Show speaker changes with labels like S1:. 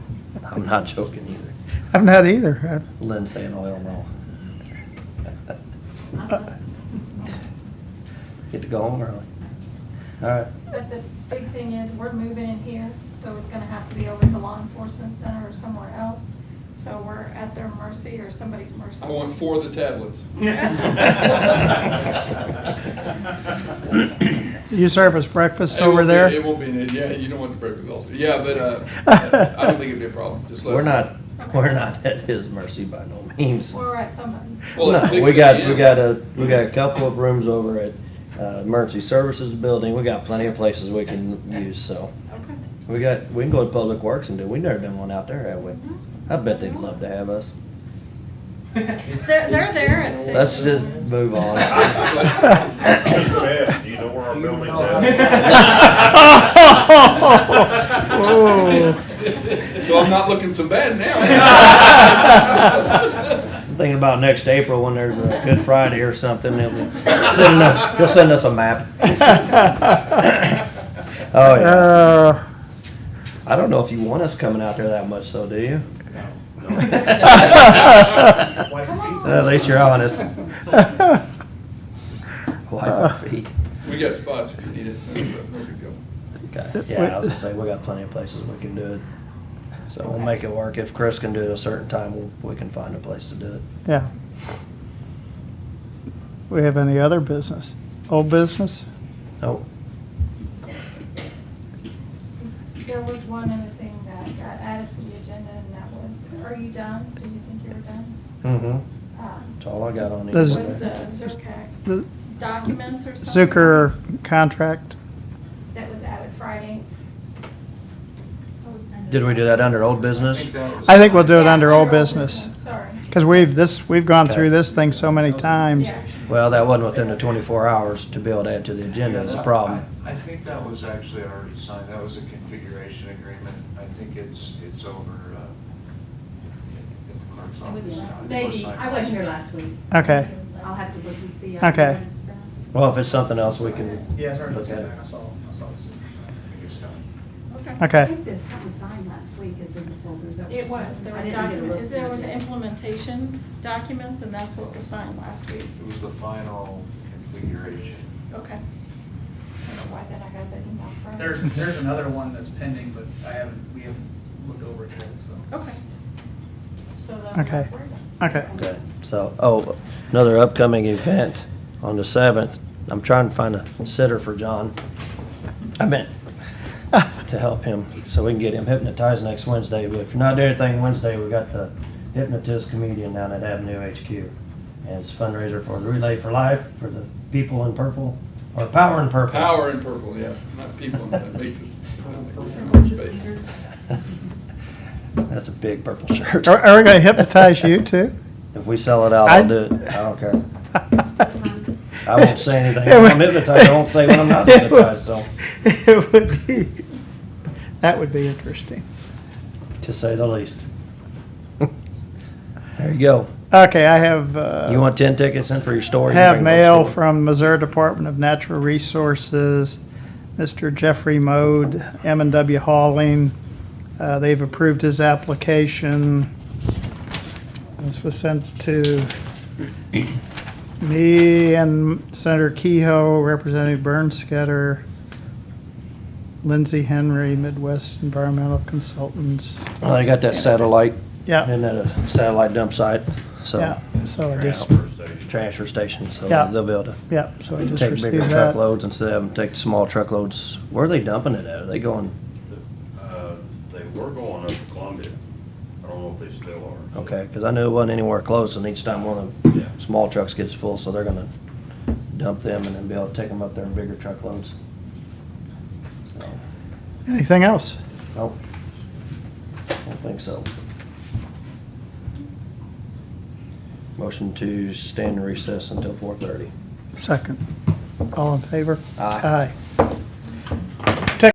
S1: I'm not joking either.
S2: I've not either.
S1: Lynn saying "Oh, oil no.
S2: I-
S1: Get to go home early. All right,
S3: But the big thing is, we're moving in here, so it's gonna have to be over at the law enforcement center or somewhere else. So we're at their mercy or somebody's mercy.
S4: I want four of the tablets.
S2: You serve us breakfast
S4: It won't
S2: over
S4: be-
S2: there?
S4: It won't be, an- yeah, you don't want the breakfast also. Yeah, but uh, I don't think it'd be a problem, just let us.
S1: we're not,
S4: know.
S1: we're not at his mercy by no means.
S3: We're at somebody.
S4: Well, at
S1: No,
S4: 6
S1: we got, we
S4: a.m..
S1: got a, we got a couple of rooms over at uh, Emergency Services Building. We got plenty of places we can use, so.
S3: Okay.
S1: We got, we can go to Public Works and do, we never done one out there, have we? I bet they'd love to have us.
S3: They're, they're there at six.
S1: Let's just move on.
S5: Do you know where our building's
S2: Oh.
S4: So I'm not looking so bad now.
S1: I'm thinking about next April when there's a Good Friday or something, they'll be sending us, they'll send us a map. Oh, yeah.
S2: Uh,
S1: I don't know if you want us coming out there that much, so do you?
S2: No.
S3: Come on.
S1: At least you're honest.
S2: Uh,
S1: Wipe our feet.
S4: We got spots if you need it, no no big deal.
S1: Okay, yeah, I was gonna say, we got plenty of places we can do it. So we'll make it work. If Chris can do it a certain time, we'll- we can find a place to do it.
S2: Yeah. We have any other business? Old business?
S1: Oh,
S3: There was one other thing that got added to the agenda, and that was, are you done? Did you think you were done?
S1: mm-hmm,
S3: Um,
S1: that's all I got on it.
S2: Does-
S3: Was the Zercat
S2: The
S3: documents or something?
S2: Zucker contract?
S3: That was added Friday.
S1: Did we do that under old business?
S4: think that was-
S2: I think we'll do it under
S3: Yeah,
S2: old business.
S3: Sorry.
S2: Because we've, this, we've gone
S1: Okay.
S2: through this thing so many times.
S3: Yeah.
S1: Well, that wasn't within the twenty-four hours to be able to add to the agenda, is the problem.
S6: I I think that was actually already signed, that was a configuration agreement, I think it's, it's over uh, in the clerk's office now. It was
S7: Maybe,
S6: signed
S7: I wasn't here last week.
S2: Okay.
S7: I'll have to look and see.
S2: Okay.
S1: Well, if it's something else, we can.
S5: Yeah, it's already
S1: look at
S5: been
S1: it.
S5: back. I saw, I saw this.
S6: I think it's done.
S7: I
S2: Okay.
S7: think there's something signed last week, is in the folders.
S3: It was, there
S7: I
S3: was
S7: didn't get a look.
S3: document, there was implementation documents, and that's what was signed last week.
S6: It was the final configuration.
S3: Okay. I don't know why then I got that email from.
S5: There's, there's another one that's pending, but I haven't, we haven't looked over it yet, so.
S3: Okay. So then.
S2: Okay.
S3: we're done.
S2: Okay.
S1: Okay, so, oh, another upcoming event on the seventh. I'm trying to find a sitter for John. I meant to help him, so we can get him hypnotized next Wednesday. But if you're not doing anything Wednesday, we got the hypnotist comedian down at Avenue HQ. And it's fundraiser for Relay for Life, for the people in purple, or Power in Purple.
S4: Power in purple, yes, not people, that makes us, purple space.
S1: That's a big purple shirt.
S2: Are, are we gonna hypnotize you too?
S1: If we sell it out,
S2: I-
S1: I'll do it. I don't care. I won't say anything when I'm hypnotized. I won't say when I'm not hypnotized, so.
S2: It would be, that would be interesting.
S1: to say the least. There you go.
S2: Okay, I have, uh.
S1: You want ten tickets in for your store? you
S2: Have
S1: bring them to the
S2: mail
S1: store.
S2: from Missouri Department of Natural Resources, Mr. Jeffrey Mode, m and W Hauling. Uh, They've approved his application. This was sent to me and Senator Kehoe, Representative Bernsketter, Lindsey Henry, Midwest Environmental Consultants.
S1: Well, they got that satellite.
S2: Yeah.
S1: And that uh, satellite dump site, so,
S2: Yeah, so I just,
S1: transfer station, so
S2: Yeah.
S1: they'll be able to
S2: yeah, so I just
S1: take bigger
S2: received that.
S1: truckloads instead of them take the small truckloads. Where are they dumping it at? Are they going,
S5: Uh, They were going up to Columbia. I don't know if they still are.
S1: okay, because I knew it wasn't anywhere close, and each time one of
S5: Yeah.
S1: the small trucks gets full, so they're gonna dump them and then be able to take them up there in bigger truckloads. So,
S2: Anything else?
S1: Nope. Don't think so. Motion to stand in recess until four thirty.
S2: Second. All in favor?
S1: Aye.
S2: Aye.